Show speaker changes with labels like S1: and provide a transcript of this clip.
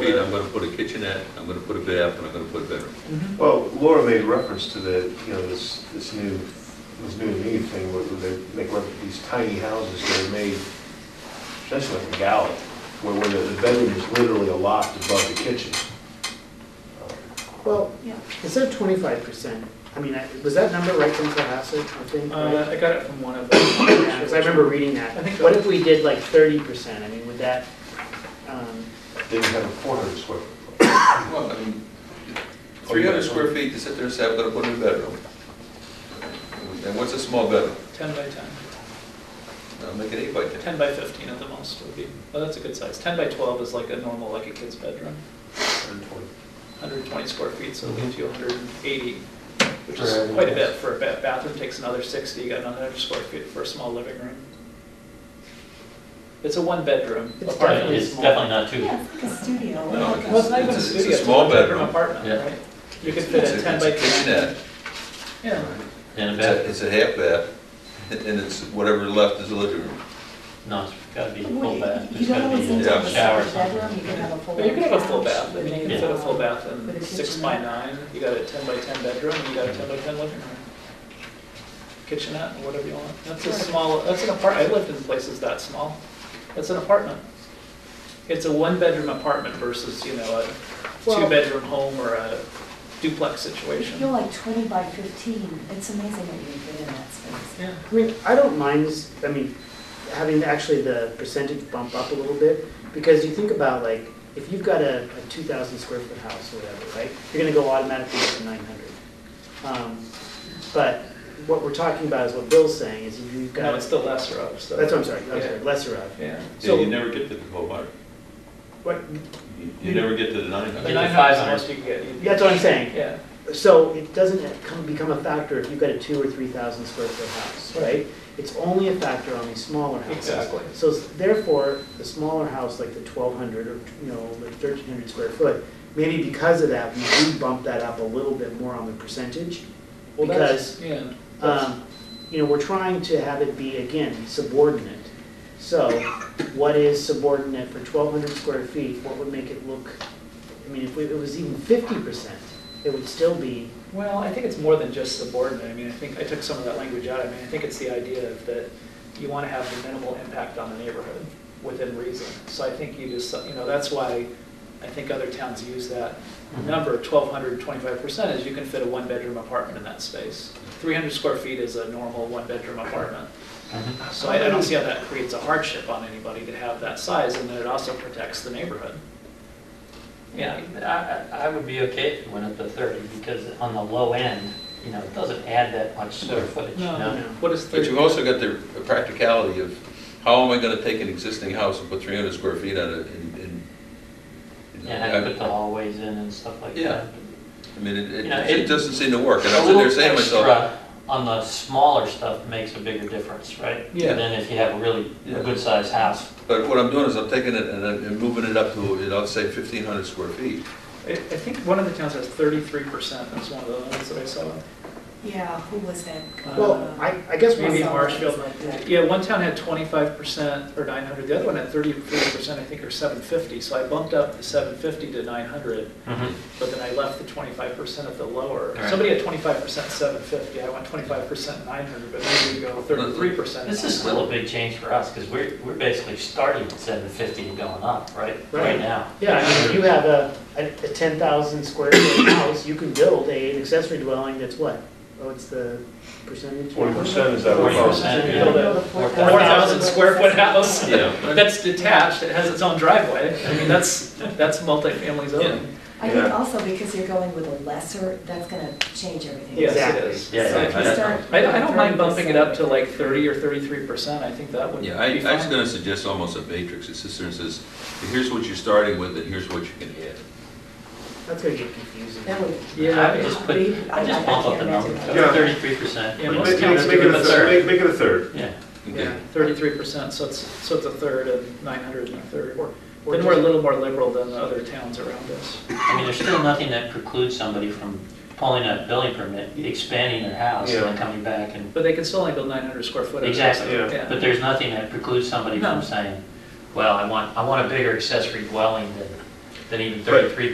S1: feet, I'm gonna put a kitchenette, I'm gonna put a bath, and I'm gonna put a bedroom.
S2: Mm-hmm.
S3: Well, Laura made reference to the, you know, this, this new, this new me thing where they make reference to these tiny houses that are made essentially like a galley, where, where the the bedroom is literally a loft above the kitchen.
S4: Well,
S5: Yeah.
S4: is there twenty-five percent? I mean, I- was that number right from Cohasset, I think?
S2: Uh,
S4: right?
S2: I got it from one of them.
S4: Yeah, because I remember reading that.
S2: I think so.
S4: What if we did like thirty percent? I mean, would that, um,
S3: Didn't have a four hundred square foot.
S1: Well, I mean, three hundred square feet to sit there and say, I'm gonna put in a bedroom. And what's a small bedroom?
S2: Ten by ten,
S1: I'll make it eight by ten.
S2: ten by fifteen at the most would be, oh, that's a good size. Ten by twelve is like a normal, like a kid's bedroom, hundred and twenty square feet, so it leaves you hundred and eighty, which
S3: For
S2: is
S3: a
S2: quite a
S3: nice-
S2: bit for a ba- bathroom, takes another sixty, you got another hundred square feet for a small living room. It's a one-bedroom
S4: It's
S2: apartment.
S4: definitely
S6: It's definitely not two.
S5: Yeah, it's like a studio.
S1: No,
S2: Well, it's
S5: Like
S2: not
S1: It's a-
S2: even a
S1: it's a
S2: studio, it's a
S1: small
S2: one-bedroom
S1: bedroom.
S2: apartment,
S6: Yeah.
S2: right? You could fit
S1: It's
S2: a
S1: a-
S2: ten
S1: it's
S2: by
S1: a
S2: ten.
S1: kitchenette,
S2: Yeah,
S6: And
S1: it's
S6: a
S1: a-
S6: bathroom.
S1: it's a half bath, and it's whatever left is a living room.
S6: No, it's gotta be
S5: a-
S6: a full bath.
S5: You
S6: There's
S5: don't
S6: gotta
S5: always
S6: be
S5: need
S6: a
S5: to have
S1: Yeah.
S5: a
S6: shower or
S5: separate
S6: something.
S5: bedroom, you could have a full.
S2: but you could have a full
S5: couch,
S2: bath, I mean, you could
S5: could
S2: fit a full
S5: have-
S2: bath in
S5: With a
S2: six by
S5: kitchenette.
S2: nine, you got a ten by ten bedroom, and you got a ten by ten living room. Kitchenette, or whatever you want, that's a
S5: Right.
S2: small, that's an apartment, I lived in places that small, that's an apartment. It's a one-bedroom apartment versus, you know, a
S4: Well-
S2: two-bedroom home or a duplex
S5: If you're
S2: situation.
S5: like twenty by fifteen, it's amazing what you can fit in that space.
S2: Yeah,
S4: I mean, I don't mind, s- I mean, having actually the percentage bump up a little bit, because you think about like, if you've got a, a two thousand square foot house or whatever, right? You're gonna go automatically up to nine hundred. But what we're talking about is what Bill's saying, is if you've got.
S2: no, it's the lesser of, so.
S4: That's what I'm sorry, I'm sorry,
S2: Yeah.
S4: lesser of.
S2: Yeah,
S4: So-
S1: Yeah, you never get to the twelve hundred,
S4: What,
S1: You- you never get to the nine
S2: the
S1: hundred.
S6: Like,
S2: nine hundred is the most you can get. You-
S4: that's what I'm saying.
S2: Yeah,
S4: So it doesn't come, become a factor if you've got a two or three thousand square foot house, right? It's only a factor on these smaller houses.
S2: Exactly.
S4: So s- therefore, the smaller house, like the twelve hundred or, you know, the thirteen hundred square foot, maybe because of that, we do bump that up a little bit more on the percentage.
S2: well, that's,
S4: Because,
S2: yeah. that's-
S4: um, you know, we're trying to have it be, again, subordinate. So what is subordinate for twelve hundred square feet? What would make it look, I mean, if it was even fifty percent, it would still be
S2: Well, I think it's more than just subordinate. I mean, I think, I took some of that language out. I mean, I think it's the idea of that you want to have the minimal impact on the neighborhood within reason. So I think you just, you know, that's why I think other towns use that number, 1,200, 25%, is you can fit a one-bedroom apartment in that space. 300 square feet is a normal one-bedroom apartment.
S6: Mhm.
S2: So I I don't see how that creates a hardship on anybody to have that size, and then it also protects the neighborhood.
S6: Yeah, I, I- I would be okay if it went up to thirty, because on the low end, you know, it doesn't add that much square footage, you know?
S2: What is
S1: But
S2: 30?
S1: you've also got the practicality of, how am I gonna take an existing house and put three hundred square feet on it and, and. you know,
S6: And I put the
S1: I-
S6: hallways in and stuff like
S1: Yeah.
S6: that.
S1: I mean, it, it-
S6: you know,
S1: it
S6: it-
S1: doesn't seem to work, and I
S6: A
S1: was in there
S6: little
S1: saying to myself,
S6: extra On the smaller stuff makes a bigger difference, right?
S1: Yeah.
S6: Than if you have a really,
S1: Yeah.
S6: a good-sized house.
S1: but what I'm doing is I'm taking it and I'm moving it up to, you know, say fifteen hundred square feet.
S2: I I think one of the towns has 33%, that's one of the ones that I saw.
S5: Yeah, who was that?
S4: Well, I, I guess
S2: Um, Maybe
S4: we,
S2: in Marshfield.
S5: Yeah.
S2: Yeah, one town had twenty-five percent or nine hundred, the other one had thirty-three percent, I think, or seven fifty. So I bumped up the seven fifty to nine hundred,
S1: Mm-hmm.
S2: but then I left the twenty-five percent at the lower.
S6: Right.
S2: Somebody had twenty-five percent, seven fifty, I went twenty-five percent, nine hundred, but maybe we go thirty-three percent.
S6: This is still a big change for us, because we're, we're basically starting at seven fifty and going up, right?
S4: Right.
S6: Right now.
S4: yeah, I mean, if you have a, a a ten thousand square foot house, you can build a, an accessory dwelling that's what? Oh, it's the percentage?
S3: Forty percent is that
S6: Forty
S3: what?
S6: percent,
S4: Yeah.
S5: You don't build a
S6: Four
S2: Four thousand square foot house,
S1: Yeah.
S2: that's detached, it has its own driveway. I mean, that's, that's multifamily zoning.
S5: I think
S3: Yeah.
S5: also because you're going with a lesser, that's gonna change everything.
S2: Yes,
S4: Exactly.
S2: it is.
S6: Yeah,
S5: So
S6: yeah,
S5: if you
S6: I-
S5: start
S2: I don't, I
S5: with
S2: don't mind bumping it up to
S5: 30%.
S2: like thirty or thirty-three percent, I think that would be
S1: Yeah,
S2: fine.
S1: I, I was gonna suggest almost a matrix, it sits there and says, here's what you're starting with and here's what you can add.
S4: That's gonna get confusing.
S5: That would.
S6: I
S2: Yeah,
S6: would
S2: it's-
S6: just put, I just bump up the number,
S3: Yeah.
S6: thirty-three percent.
S2: Yeah,
S3: Make
S2: most
S3: make-
S2: towns
S3: make
S2: do
S3: it a
S2: a
S3: third,
S2: third.
S3: make- make it a third.
S6: Yeah,
S2: yeah,
S1: Okay.
S2: thirty-three percent, so it's, so it's a third and nine hundred and a third.
S4: Or- or
S2: Then we're a
S4: just-
S2: little more liberal than the other towns around us.
S6: I mean, there's still nothing that precludes somebody from pulling a building permit, expanding their house and then
S3: Yeah.
S6: coming back and,
S2: But they can still only build nine hundred square foot. at a time.
S6: exactly.
S3: Yeah.
S2: Yeah.
S6: But there's nothing that precludes somebody
S2: No.
S6: from saying, well, I want, I want a bigger accessory dwelling than than even thirty-three